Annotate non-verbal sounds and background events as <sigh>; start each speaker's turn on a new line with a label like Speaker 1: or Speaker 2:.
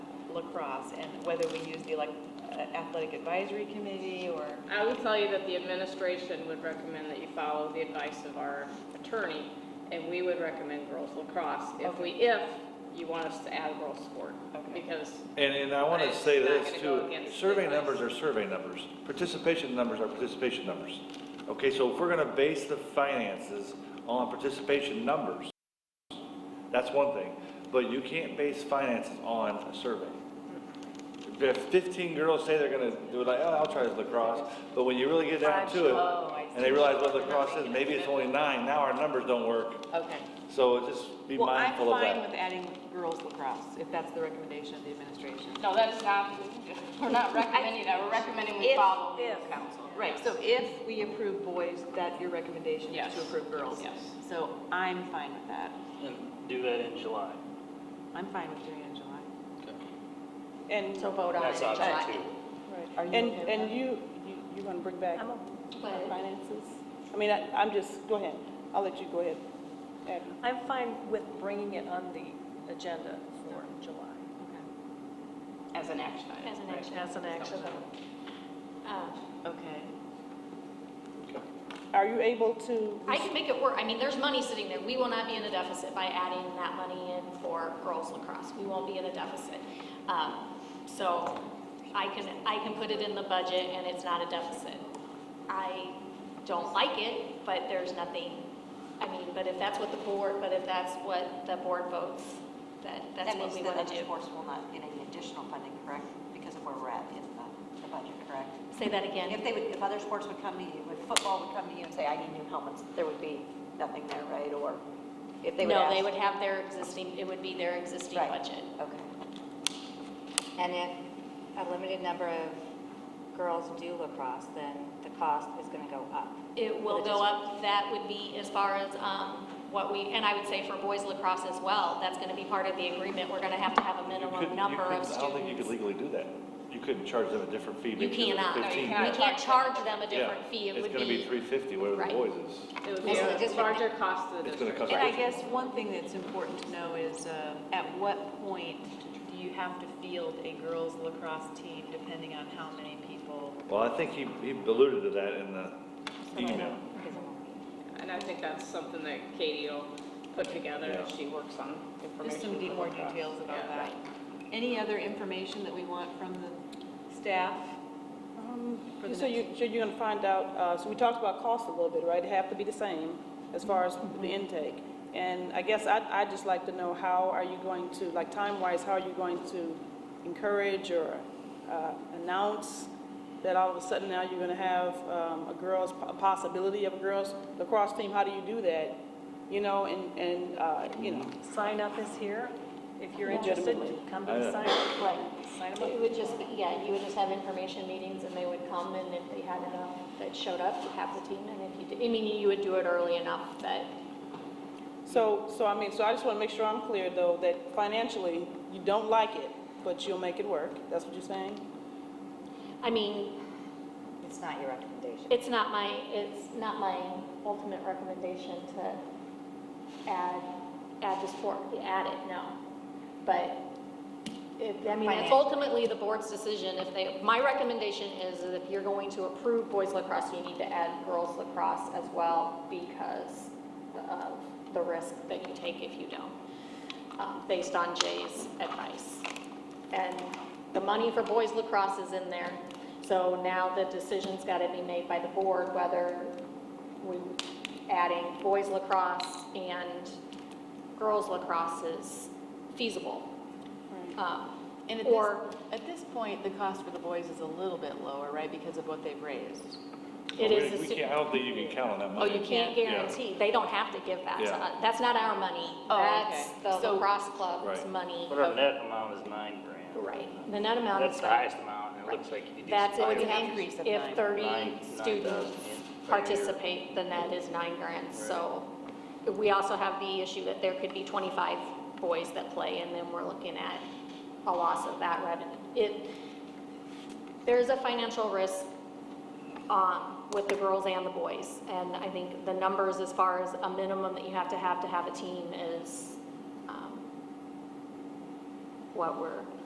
Speaker 1: across, and whether we use the elec- athletic advisory committee or,
Speaker 2: I will tell you that the administration would recommend that you follow the advice of our attorney, and we would recommend girls lacrosse if we, if you want us to add a girls sport.
Speaker 1: Okay.
Speaker 2: Because
Speaker 3: And, and I want to say
Speaker 2: It's not
Speaker 3: this
Speaker 2: gonna go
Speaker 3: too,
Speaker 2: against the
Speaker 3: survey
Speaker 2: advice.
Speaker 3: numbers are survey numbers, participation numbers are participation numbers. Okay, so if we're going to base the finances on participation numbers, that's one thing, but you can't base finances on a survey. If fifteen girls say they're going to do it, like, oh, I'll try lacrosse, but when you really get down to
Speaker 1: Oh, I
Speaker 3: it, and they
Speaker 1: see.
Speaker 3: realize what lacrosse is, maybe it's only nine, now our numbers don't work,
Speaker 1: okay.
Speaker 3: so just be
Speaker 1: Well, I'm
Speaker 3: mindful of that.
Speaker 1: fine with adding girls lacrosse, if that's the recommendation of the administration.
Speaker 2: No, that is not,
Speaker 1: <laughs>
Speaker 2: we're not recommending that, we're recommending we
Speaker 1: If-
Speaker 2: follow the
Speaker 1: if.
Speaker 2: council.
Speaker 1: Right, so if we approve boys, that your recommendation is
Speaker 2: Yes.
Speaker 1: to approve girls?
Speaker 2: Yes.
Speaker 1: So I'm fine with that.
Speaker 4: And do that in July.
Speaker 1: I'm fine with doing it in July.
Speaker 5: And,
Speaker 6: So vote on it in
Speaker 4: That's option
Speaker 6: July.
Speaker 4: two.
Speaker 1: Are you
Speaker 5: and,
Speaker 1: okay with
Speaker 5: and
Speaker 1: that?
Speaker 5: you, you- you want to bring back
Speaker 6: I'm
Speaker 5: our
Speaker 6: But
Speaker 5: finances? I mean, I- I'm just, go ahead. I'll let you go ahead. Abby.
Speaker 6: I'm fine with bringing it on the agenda for July.
Speaker 2: As an action item.
Speaker 7: As an
Speaker 2: right?
Speaker 7: action.
Speaker 6: As an action item.
Speaker 7: Uh,
Speaker 1: Okay.
Speaker 5: Are you able to?
Speaker 7: I can make it work. I mean, there's money sitting there. We will not be in a deficit by adding that money in for girls lacrosse. We won't be in a deficit. Um, So I can, I can put it in the budget and it's not a deficit. I don't like it, but there's nothing, I mean, but if that's what the board, but if that's what the board votes, that, that's
Speaker 8: That
Speaker 7: what
Speaker 8: means
Speaker 7: we
Speaker 8: that
Speaker 7: want
Speaker 8: other
Speaker 7: to do.
Speaker 8: sports will not get any additional funding, correct? Because of where we're at in the, the budget, correct?
Speaker 7: Say that
Speaker 8: If
Speaker 7: again.
Speaker 8: they would, if other sports would come to you, if football would come to you and say, I need new helmets, there would be nothing there, right? Or if they would
Speaker 7: No,
Speaker 8: ask.
Speaker 7: they would have their existing, it would be their existing
Speaker 8: Right.
Speaker 7: budget.
Speaker 8: Okay.
Speaker 6: And if a limited number of girls do lacrosse, then the cost is going to go up.
Speaker 7: It will
Speaker 6: But it
Speaker 7: go
Speaker 6: just-
Speaker 7: up, that would be as far as um, what we, and I would say for boys lacrosse as well, that's going to be part of the agreement, we're going to have to have a
Speaker 3: You couldn't-
Speaker 7: minimum
Speaker 3: you
Speaker 7: number
Speaker 3: couldn't-
Speaker 7: of
Speaker 3: I don't think you could
Speaker 7: students.
Speaker 3: legally do that. You couldn't charge them a different fee.
Speaker 7: You
Speaker 3: because it's
Speaker 7: cannot, we
Speaker 3: 15.
Speaker 7: can't charge them a
Speaker 3: Yeah.
Speaker 7: different fee, it would
Speaker 3: It's gonna be
Speaker 7: be,
Speaker 3: three fifty, whatever the
Speaker 7: Right.
Speaker 3: boys is.
Speaker 2: It would be
Speaker 6: And so
Speaker 2: a
Speaker 6: just-
Speaker 2: larger cost to the
Speaker 3: It's gonna
Speaker 2: district.
Speaker 3: cost.
Speaker 1: And I guess one thing that's important to know is, uh, at what point do you have to field a girls lacrosse team, depending on how many people?
Speaker 3: Well, I think he, he alluded to that in the email.
Speaker 2: And I think that's something that Katie will put together as
Speaker 3: Yeah.
Speaker 2: she works on information.
Speaker 1: Just some de-
Speaker 2: for
Speaker 1: more
Speaker 2: lacrosse.
Speaker 1: details about
Speaker 2: Yeah.
Speaker 1: that. Any other information that we want from the staff?
Speaker 5: Um,
Speaker 1: For the
Speaker 5: So you, so you're going to find out, uh, so we talked about cost a little bit, right? It have to be the same as far as the intake. And I guess I'd, I'd just like to know, how are you going to, like time-wise, how are you going to encourage or uh, announce that all of a sudden now you're going to have um, a girls, a possibility of a girls lacrosse team? How do you do that? You know, and, and, uh, you know,
Speaker 6: Sign up is here. If you're interested,
Speaker 5: Legitimately.
Speaker 6: come to the
Speaker 3: I
Speaker 6: sign
Speaker 3: know.
Speaker 6: up.
Speaker 7: right.
Speaker 6: Sign 'em up.
Speaker 7: It would just be, yeah, you would just have information meetings and they would come and if they had enough that showed up, you have the team and if you, did- I mean, you would do it early enough that
Speaker 5: So, so I mean, so I just want to make sure I'm clear, though, that financially, you don't like it, but you'll make it work. That's what you're saying?
Speaker 7: I mean,
Speaker 6: It's not your recommendation.
Speaker 7: it's not my, it's not my ultimate recommendation to add, add the sport, add it, no. But if, I mean, it's
Speaker 6: Financial.
Speaker 7: ultimately the board's decision if they, my recommendation is that if you're going to approve boys lacrosse, you need to add girls lacrosse as well because of the risk that you take if you don't, um, based on Jay's advice. And the money for boys lacrosse is in there. So now the decision's got to be made by the board whether we adding boys lacrosse and girls lacrosse is feasible. Um,
Speaker 1: And at this,
Speaker 7: Or-
Speaker 1: at this point, the cost for the boys is a little bit lower, right, because of what they've raised?
Speaker 7: It
Speaker 3: We-
Speaker 7: is,
Speaker 3: We
Speaker 7: a
Speaker 3: can't, I
Speaker 7: su-
Speaker 3: don't think you can count on that
Speaker 1: Oh,
Speaker 3: money.
Speaker 1: you
Speaker 7: can't
Speaker 3: Yeah.
Speaker 7: guarantee, they don't have to give that to
Speaker 3: Yeah.
Speaker 7: us. That's not our money.
Speaker 1: Oh,
Speaker 7: That's
Speaker 1: okay.
Speaker 7: the
Speaker 1: So-
Speaker 7: lacrosse club's
Speaker 3: Right.
Speaker 7: money.
Speaker 4: But our net amount is nine grand.
Speaker 7: Right. The net amount
Speaker 4: That's
Speaker 7: is.
Speaker 4: the highest amount, and it looks like you do.
Speaker 7: That's, it would be
Speaker 1: an
Speaker 4: five-
Speaker 1: increase of nine.
Speaker 7: if thirty
Speaker 4: Nine- nine
Speaker 7: students
Speaker 4: thousand, yeah, per year.
Speaker 7: participate, then that is nine grants. So we also have the issue that there could be twenty-five boys that play, and then we're looking at a loss of that revenue. It, there's a financial risk um, with the girls and the boys. And I think the numbers as far as a minimum that you have to have to have a team is um, what we're